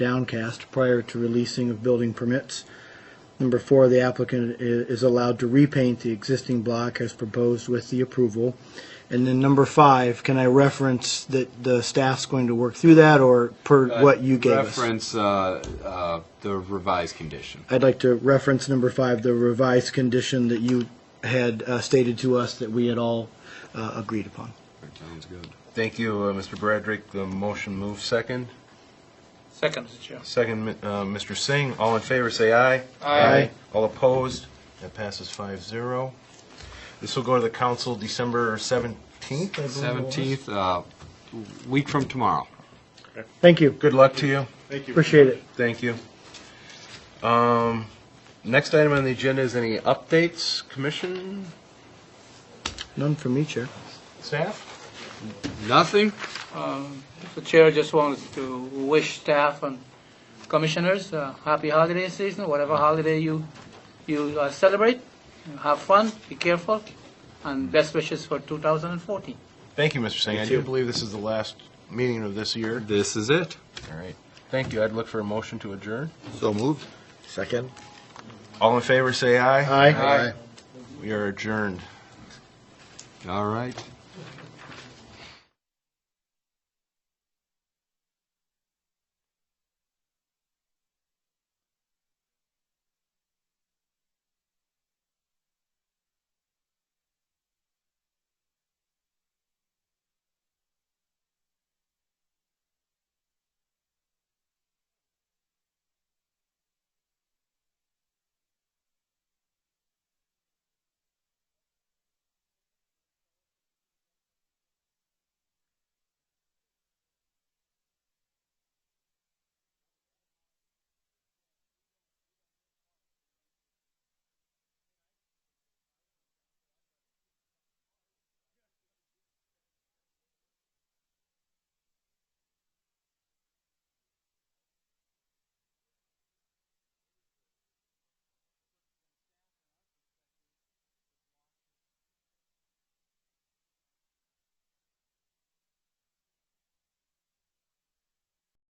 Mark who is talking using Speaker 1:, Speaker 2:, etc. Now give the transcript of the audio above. Speaker 1: downcast prior to releasing of building permits. Number four, the applicant i- is allowed to repaint the existing block as proposed with the approval. And then number five, can I reference that the staff's going to work through that or per what you gave us?
Speaker 2: Reference uh, uh, the revised condition.
Speaker 1: I'd like to reference number five, the revised condition that you had uh, stated to us that we had all uh, agreed upon.
Speaker 2: Sounds good.
Speaker 3: Thank you, uh, Mr. Bradrick. The motion moves second.
Speaker 4: Second, Mr. Chair.
Speaker 3: Second, mi- uh, Mr. Singh. All in favor, say aye.
Speaker 1: Aye.
Speaker 3: All opposed? That passes 5-0. This will go to the council December 17th, I believe it was.
Speaker 2: 17th, uh, week from tomorrow.
Speaker 1: Thank you.
Speaker 3: Good luck to you.
Speaker 1: Appreciate it.
Speaker 3: Thank you. Um, Next item on the agenda is any updates, commission,
Speaker 1: None from me, Chair.
Speaker 3: staff?
Speaker 2: Nothing?
Speaker 4: Um, Mr. Chair, just wanted to wish staff and commissioners uh, happy holiday season, whatever holiday you, you uh, celebrate. Have fun, be careful, and best wishes for 2014.
Speaker 3: Thank you, Mr. Singh. I do believe this is the last meeting of this year.
Speaker 2: This is it.
Speaker 3: All right. Thank you. I'd look for a motion to adjourn.
Speaker 2: So moved.
Speaker 5: Second?
Speaker 3: All in favor, say aye.
Speaker 1: Aye.
Speaker 3: We are adjourned.
Speaker 2: All right.